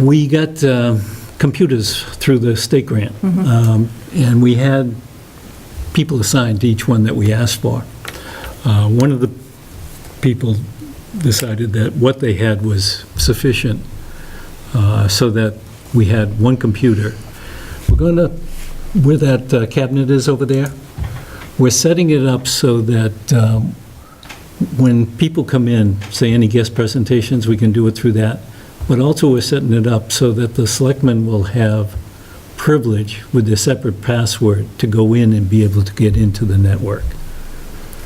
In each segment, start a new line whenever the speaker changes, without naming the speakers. We got uh, computers through the state grant, Um, and we had people assigned to each one that we asked for. Uh, One of the people decided that what they had was sufficient, uh, so that we had one computer. We're going to, where that uh, cabinet is over there, we're setting it up so that um, when people come in, say any guest presentations, we can do it through that. But also, we're setting it up so that the selectmen will have privilege with their separate password to go in and be able to get into the network.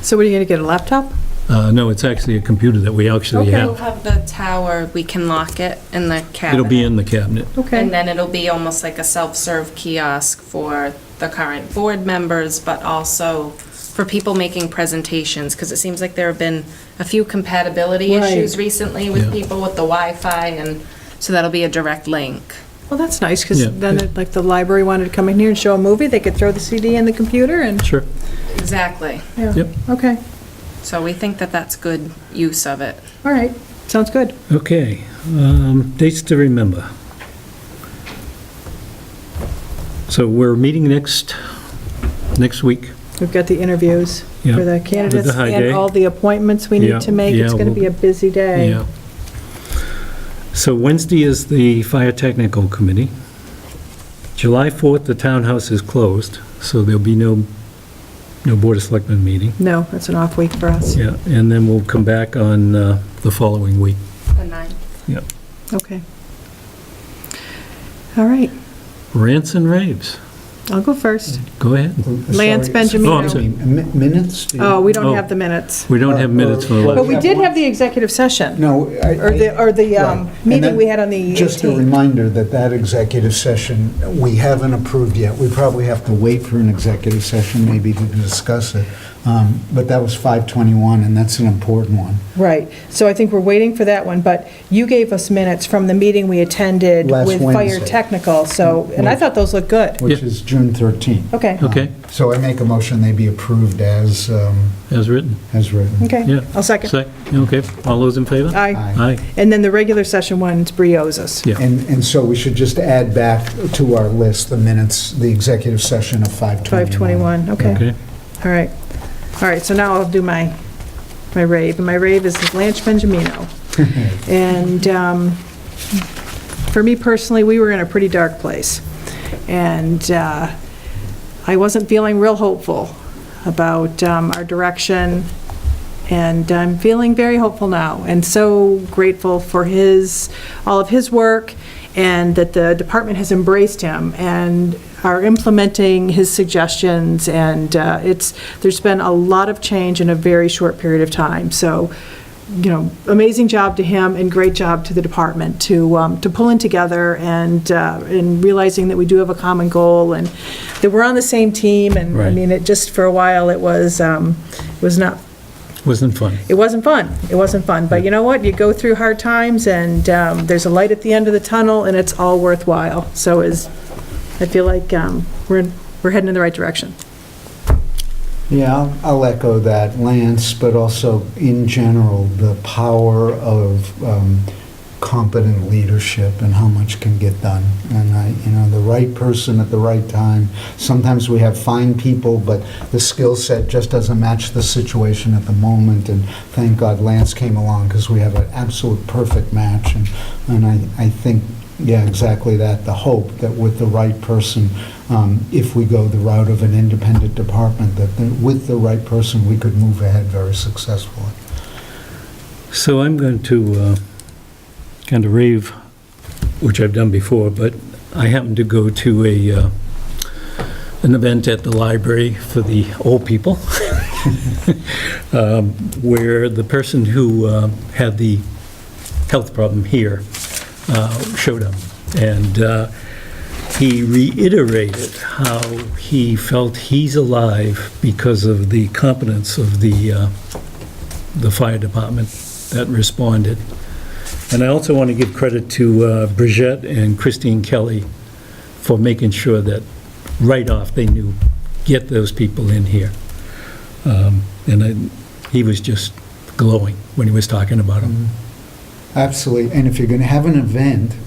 So what, are you going to get, a laptop?
Uh, No, it's actually a computer that we actually
Okay.
We'll
have.
have the tower, we can lock it in the cabinet.
It'll be in the cabinet.
And then it'll be almost like a self-serve kiosk for the current board members, but also for people making presentations, because it seems like there have been a few compatibility
Right.
issues recently with
Yeah.
people with the Wi-Fi, and so that'll be a direct link.
Well, that's nice,
Yeah.
because then, it- like, the library wanted to come in here and show a movie, they could throw the CD in the computer and,
Sure.
Exactly.
yeah,
Yep.
okay,
So we think that that's good use of it.
all right, sounds good.
Okay. um, Dates to remember. So we're meeting next, next week.
We've got the interviews
Yeah.
for the candidates
high
and
day.
all the appointments we
Yeah,
need to make. It's
yeah,
going to
we'll-
be a busy day.
Yeah. So Wednesday is the Fire Technical Committee. July 4th, the townhouse is closed, so there'll be no, no Board of Selectmen meeting.
No, it's an off week for us.
Yeah, and then we'll come back on uh, the following week.
The ninth.
Okay. All right,
Rants and raves,
I'll go first.
go ahead.
Lance Benjamin.
Oh, I'm sorry.
Minutes? Do you-
Oh, we don't
Oh.
have the minutes.
We don't have minutes for
But
that.
we did have the executive session,
No. I-
or the, or the um,
Right. And
meeting
then
we had on the
Just a
18th.
reminder that that executive session, we haven't approved yet. We probably have to wait for an executive session maybe to discuss it. Um, But that was 521, and that's an important one.
Right, so I think we're waiting for that one, but you gave us minutes from the meeting we attended
Last
with Fire
Wednesday.
Technical, so, and I thought those looked good.
which
Yeah.
is June 13th.
Okay,
Okay.
Um, So I make a motion they be approved as, um,
as written.
as written.
okay,
Yeah.
I'll second.
Sec- Okay, all those in favor?
Aye.
Aye,
And then the regular session one's Briosas.
yeah,
And, and so we should just add back to our list the minutes, the executive session of 521.
521, okay,
okay.
all right. All right, so now I'll do my, my rave, and my rave is Blanche Benjamino. And um, for me personally, we were in a pretty dark place. And uh, I wasn't feeling real hopeful about um, our direction, and I'm feeling very hopeful now, and so grateful for his, all of his work, and that the department has embraced him and are implementing his suggestions, and uh, it's, there's been a lot of change in a very short period of time, so, you know, amazing job to him and great job to the department to, um, to pulling together and, uh, and realizing that we do have a common goal and that we're on the same team, and, I
Right.
mean, it, just for a while, it was, um, it was not
Wasn't fun.
it wasn't fun. It wasn't fun. But you know what? You go through hard times, and um, there's a light at the end of the tunnel, and it's all worthwhile. So is, I feel like um, we're, we're heading in the right direction.
Yeah, I'll- I'll echo that, Lance, but also in general, the power of um, competent leadership and how much can get done. And I, you know, the right person at the right time. Sometimes we have fine people, but the skill set just doesn't match the situation at the moment. And thank God Lance came along because we have an absolute perfect match. And, and I, I think, yeah, exactly that, the hope that with the right person, um, if we go the route of an independent department, that the- with the right person, we could move ahead very successfully.
So I'm going to uh, kind of rave, which I've done before, but I happened to go to a, uh, an event at the library for the old people, um, where the person who uh, had the health problem here uh, showed up. And uh, he reiterated how he felt he's alive because of the competence of the uh, the fire department that responded. And I also want to give credit to uh, Bridgette and Christine Kelly for making sure that right off they knew, get those people in here. Um, And I- he was just glowing when he was talking about them.
Absolutely, and if you're going to have an event,